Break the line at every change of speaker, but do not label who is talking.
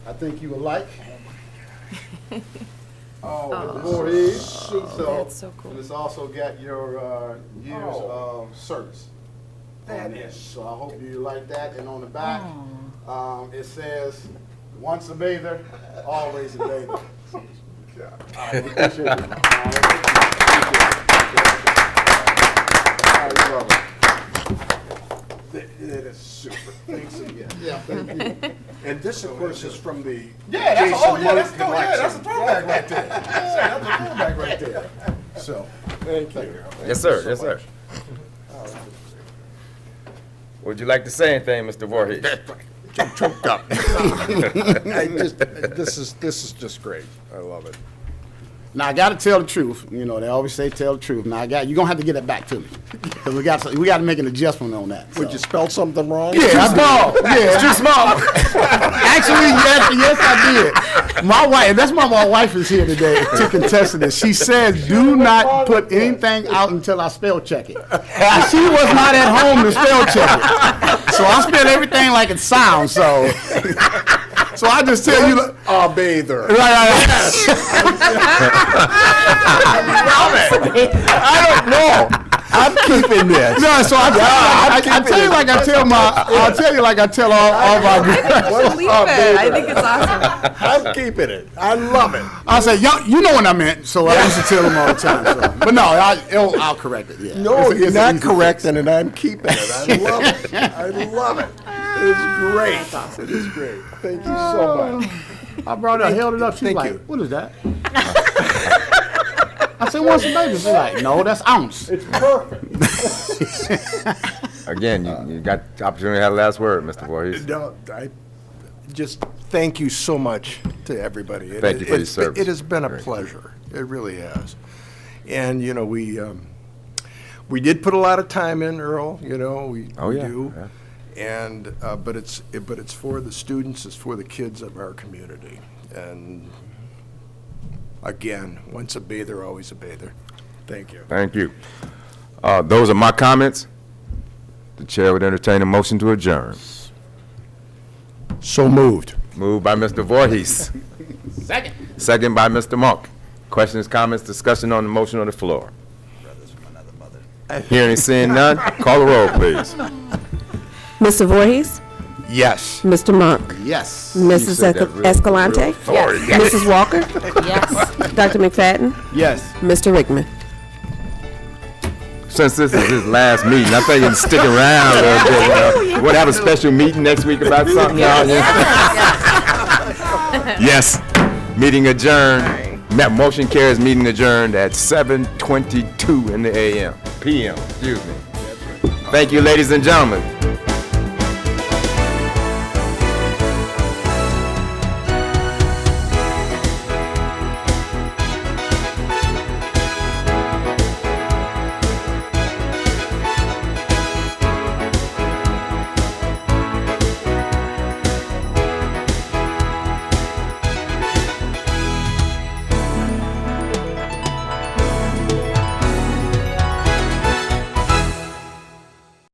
I think you will like.
Oh,
The
this-
board is, so.
That's so cool.
And it's also got your, uh, years of
Oh.
service.
that
on there.
is, Oh.
So I hope you like that, and on the back, um, it says, once a bather, always a bather. All right, we appreciate it. All right. Thank you. All right, brother.
that that is super. Thanks again.
Yeah, thank you.
And this, of course, is from the
Yeah, that's, oh, yeah, that's,
Jason Moore
throw- yeah, that's a throwback
collection.
right there. Yeah, that's a throwback right there. So, thank you.
Yes, sir. Yes, sir. Would you like to say anything, Mr. Voorhees?
I just, this is, this is just great. I love it. Now, I gotta tell the truth, you know, they always say tell the truth. Now, I got, you're gonna have to get it back to me. Cause we got, we gotta make an adjustment on that, so.
Would you spell something wrong?
Yeah, I know. Yeah, it's too small. Actually, yes, yes, I did. My wife, that's why my wife is here today to contest this. She says, "Do not put anything out until I spell check it." And she was not at home to spell check it, so I spelled everything like it sounds. So, so I just tell you. Right,
A bather.
right, right. I don't know.
I'm keeping this.
No, so I tell, I, I, I tell you like I tell my, I'll tell you like I tell all, all my girls.
I should leave it. I think it's awesome.
I'm keeping it. I love it.
I say, y'all, you know what I meant, so I used to tell them all the time. So. But no, I, it'll, I'll correct it. Yeah.
No,
It's a-
you're
it's an
not
easy
correcting it. I'm keeping it. I love it. I love it. It's great. It is great. Thank you so much.
fix. I brought it, up, held it up. She's
Thank
like,
you.
"What is that?" I said, "What's the baby?" She's like, "No, that's ounce."
It's perfect.
Again, you, you got the opportunity to have the last word, Mr. Voorhees.
No, I just thank you so much to everybody. It-
Thank you for your
it's-
service.
It has been a
Great.
pleasure. It really has. And, you know, we, um, we did put a lot of time in, Earl, you know, we
Oh,
we
yeah,
do. And, uh, but it's, it- but it's for the students, it's for the kids of our community. And again, once a bather, always a bather. Thank you.
Thank you. Uh, those are my comments. The chair would entertain a motion to adjourn.
So moved.
Moved by Mr. Voorhees. Second. Second by Mr. Monk. Questions, comments, discussion on the motion on the floor. Hearing and seeing none, call the roll, please.
Mr. Voorhees,
Yes.
Mr. Monk,
Yes.
You
Mrs.
said that real-
Esca- Escalante,
real authority.
Mrs. Walker,
Yes.
Dr. McFadden,
Yes.
Mr. Rickman.
Since this is his last meeting, I think you can stick around a little bit. you know. We'll have a special meeting next week about something. y'all. Yes. Meeting adjourned. That motion carries meeting adjourned at 7:22 in the AM, PM, excuse me. Thank you, ladies and gentlemen.